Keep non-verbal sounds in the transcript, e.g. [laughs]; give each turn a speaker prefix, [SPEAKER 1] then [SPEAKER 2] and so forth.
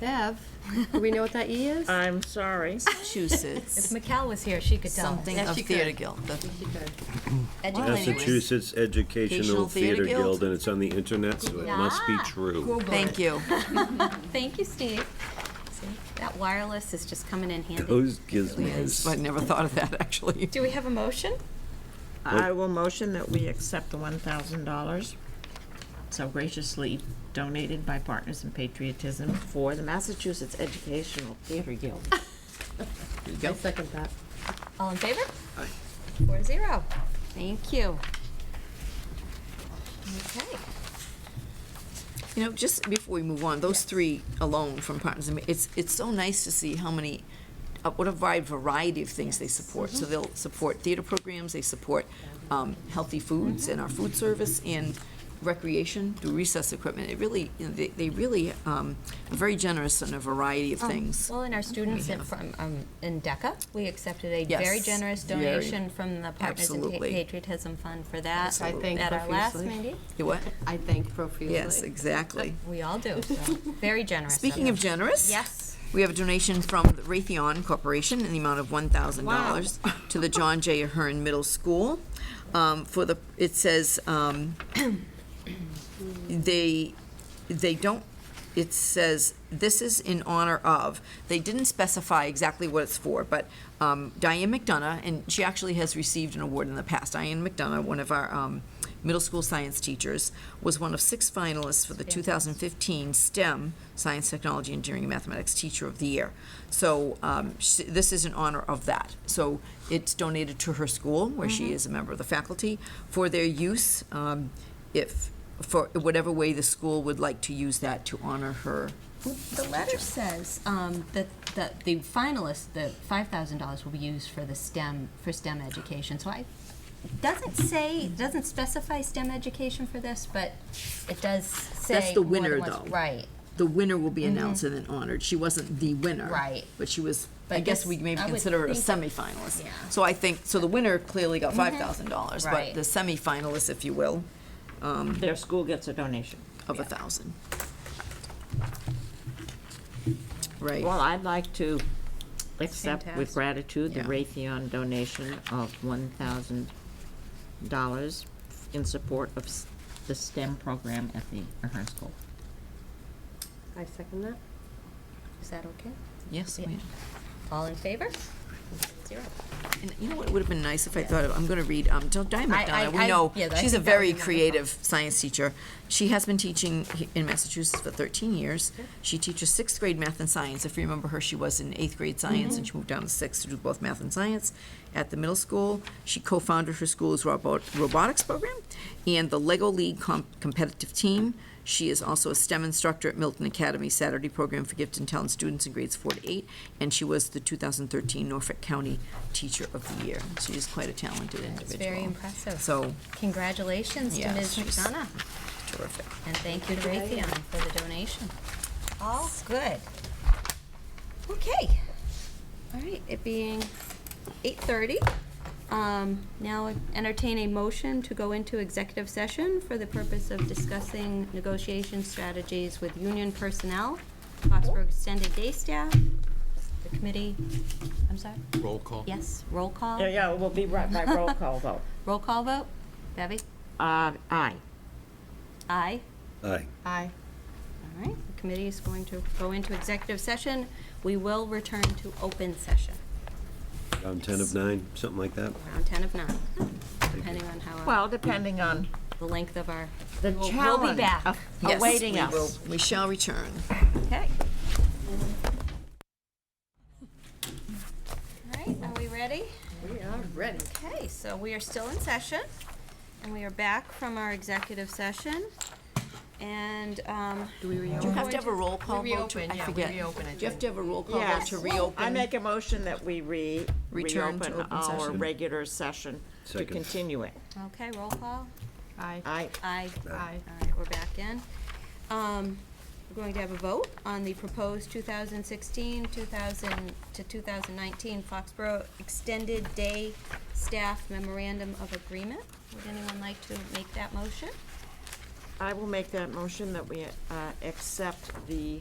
[SPEAKER 1] Bev, do we know what that E is?
[SPEAKER 2] I'm sorry.
[SPEAKER 3] [laughs]
[SPEAKER 4] Massachusetts,
[SPEAKER 3] Mikal was here, she could tell us.
[SPEAKER 4] something
[SPEAKER 1] Yes,
[SPEAKER 4] of
[SPEAKER 1] she could.
[SPEAKER 4] Theater Guild. The-
[SPEAKER 1] She could.
[SPEAKER 3] Educate us.
[SPEAKER 5] Massachusetts Educational
[SPEAKER 4] Educational Theater
[SPEAKER 5] Theater
[SPEAKER 4] Guild.
[SPEAKER 5] Guild, and it's on the internet, so it must be
[SPEAKER 3] Yeah.
[SPEAKER 5] true.
[SPEAKER 3] Google
[SPEAKER 4] Thank
[SPEAKER 3] it.
[SPEAKER 4] you.
[SPEAKER 3] Thank you, Steve. See, That wireless is just coming in handy.
[SPEAKER 5] [laughs] Those gizmos.
[SPEAKER 4] I never thought of that, actually.
[SPEAKER 3] Do we have a motion?
[SPEAKER 2] I will motion that we accept the one thousand dollars so graciously donated by Partners in Patriotism for the Massachusetts Educational Theater [laughs] Guild.
[SPEAKER 1] I second that.
[SPEAKER 3] All in favor? Four to zero. Thank you. Okay.
[SPEAKER 4] You know, just before we move on, those three alone from Partners, in Ma- it's, it's so nice to see how many, uh, what a wide variety of things they support. So they'll support theater programs, they support um, healthy foods and our food service and recreation through recess equipment. It really, you know, they, they really um, are very generous in a variety of
[SPEAKER 3] Um,
[SPEAKER 4] things.
[SPEAKER 3] Well, and our students in- from, um, in DECA, we accepted a very
[SPEAKER 4] Yes,
[SPEAKER 3] generous
[SPEAKER 4] very.
[SPEAKER 3] donation from the Partners in Pa-
[SPEAKER 4] Absolutely.
[SPEAKER 3] Patriotism Fund for that.
[SPEAKER 1] I thank
[SPEAKER 3] At our last
[SPEAKER 1] profusely.
[SPEAKER 3] meeting,
[SPEAKER 4] You what?
[SPEAKER 1] [laughs] I thank profusely.
[SPEAKER 4] Yes, exactly.
[SPEAKER 3] we all do, so very generous.
[SPEAKER 4] Speaking of generous.
[SPEAKER 3] Yes.
[SPEAKER 4] We have a donation from the Raytheon Corporation in the amount of one thousand dollars to the John J. Ahern Middle School. Um, for the, it says, um, [clears throat] they, they don't, it says, this is in honor of, they didn't specify exactly what it's for, but um, Diane McDonough, and she actually has received an award in the past, Diane McDonough, one of our um, middle school science teachers, was one of six finalists for the 2015 STEM, Science, Technology, Engineering, and Mathematics Teacher of the Year. So um, sh- this is in honor of that. So it's donated to her school, where she is a member of the faculty, for their use. um, if, for whatever way the school would like to use that to honor her.
[SPEAKER 3] The letter says um, that, that the finalists, the five thousand dollars will be used for the STEM, for STEM education, so I, doesn't say, doesn't specify STEM education for this, but it does say.
[SPEAKER 4] the
[SPEAKER 3] more than
[SPEAKER 4] winner,
[SPEAKER 3] once-
[SPEAKER 4] though.
[SPEAKER 3] Right,
[SPEAKER 4] The winner will be announced and then honored. She wasn't the winner.
[SPEAKER 3] Mm-hmm. Right.
[SPEAKER 4] But she was, I
[SPEAKER 3] But
[SPEAKER 4] guess
[SPEAKER 3] this-
[SPEAKER 4] we maybe
[SPEAKER 3] I would
[SPEAKER 4] consider her a
[SPEAKER 3] think that-
[SPEAKER 4] semifinalist.
[SPEAKER 3] Yeah. Mm-hmm.
[SPEAKER 4] So I think, so the winner clearly got five thousand dollars, but
[SPEAKER 3] Right.
[SPEAKER 4] the semifinalist, if you will, um,
[SPEAKER 2] Their school gets a donation.
[SPEAKER 4] of a thousand. Right.
[SPEAKER 2] Well, I'd like to accept with
[SPEAKER 3] Fantastic.
[SPEAKER 2] gratitude the
[SPEAKER 4] Yeah.
[SPEAKER 2] Raytheon donation of one thousand dollars in support of s- the STEM program at the Ahern School.
[SPEAKER 1] I second that.
[SPEAKER 3] is that okay?
[SPEAKER 4] Yes,
[SPEAKER 3] Yeah.
[SPEAKER 4] ma'am.
[SPEAKER 3] All in favor? Zero.
[SPEAKER 4] And you know what would have been nice if I thought of, I'm going to read, um, Di- Di
[SPEAKER 3] I-
[SPEAKER 4] McDonough, we
[SPEAKER 3] I-
[SPEAKER 4] know,
[SPEAKER 3] yeah, I
[SPEAKER 4] she's a
[SPEAKER 3] think that would be
[SPEAKER 4] very
[SPEAKER 3] wonderful.
[SPEAKER 4] creative science teacher. She has been teaching he- in Massachusetts for 13 years. She teaches sixth grade math and science. If you remember her, she was in eighth grade science,
[SPEAKER 3] Mm-hmm.
[SPEAKER 4] and she moved down to sixth to do both math and science at the middle school. She co-founded her school's robot- robotics program and the Lego League com- competitive team. She is also a STEM instructor at Milton Academy Saturday program for gifted and talented students in grades four to eight, and she was the 2013 Norfolk County Teacher of the Year. She is quite a talented individual.
[SPEAKER 3] It's very impressive.
[SPEAKER 4] So,
[SPEAKER 3] Congratulations to
[SPEAKER 4] yeah,
[SPEAKER 3] Ms.
[SPEAKER 4] she's
[SPEAKER 3] McDonough,
[SPEAKER 4] terrific.
[SPEAKER 3] and thank you to Raytheon for the donation. All good. Okay. All right, it being eight thirty, um, now entertain a motion to go into executive session for the purpose of discussing negotiation strategies with union personnel, Foxborough Extended Day Staff, the committee, I'm sorry?
[SPEAKER 6] Roll call.
[SPEAKER 3] Yes, roll call?
[SPEAKER 2] Yeah, yeah, we'll be right by roll call vote.
[SPEAKER 3] [laughs] Roll call vote? Bevy?
[SPEAKER 2] Uh, aye.
[SPEAKER 3] Aye.
[SPEAKER 5] Aye.
[SPEAKER 1] Aye.
[SPEAKER 3] All right, the committee is going to go into executive session. We will return to open session,
[SPEAKER 5] Around 10 of 9, something like that.
[SPEAKER 3] around 10 of 9, depending on how, our-
[SPEAKER 2] Well, depending on
[SPEAKER 3] the length of our,
[SPEAKER 2] the
[SPEAKER 3] We'll- we'll be
[SPEAKER 2] challenge
[SPEAKER 3] back.
[SPEAKER 2] of-
[SPEAKER 4] Yes,
[SPEAKER 2] awaiting
[SPEAKER 4] we
[SPEAKER 2] us.
[SPEAKER 4] will- We shall return.
[SPEAKER 3] okay. All right, are we ready?
[SPEAKER 1] We are ready.
[SPEAKER 3] Okay, so we are still in session, and we are back from our executive session. And, um,
[SPEAKER 1] Do we
[SPEAKER 4] Do you
[SPEAKER 1] reopen?
[SPEAKER 4] have to have a roll call
[SPEAKER 1] We
[SPEAKER 4] vote? to-
[SPEAKER 1] reopen,
[SPEAKER 4] I
[SPEAKER 1] yeah, we
[SPEAKER 4] forget.
[SPEAKER 1] reopen it,
[SPEAKER 4] Do you have to have a roll call vote
[SPEAKER 2] Yes.
[SPEAKER 4] to reopen?
[SPEAKER 2] I make a motion that we re,
[SPEAKER 4] Return to
[SPEAKER 2] reopen
[SPEAKER 4] open
[SPEAKER 2] our
[SPEAKER 4] session.
[SPEAKER 2] regular session to
[SPEAKER 5] Second.
[SPEAKER 2] continue it.
[SPEAKER 3] okay, roll call.
[SPEAKER 1] Aye.
[SPEAKER 2] Aye.
[SPEAKER 3] Aye.
[SPEAKER 1] Aye.
[SPEAKER 3] All right, we're back in. Um, We're going to have a vote on the proposed 2016, 2000 to 2019 Foxborough Extended Day Staff Memorandum of Agreement. Would anyone like to make that motion?
[SPEAKER 2] I will make that motion that we uh, accept the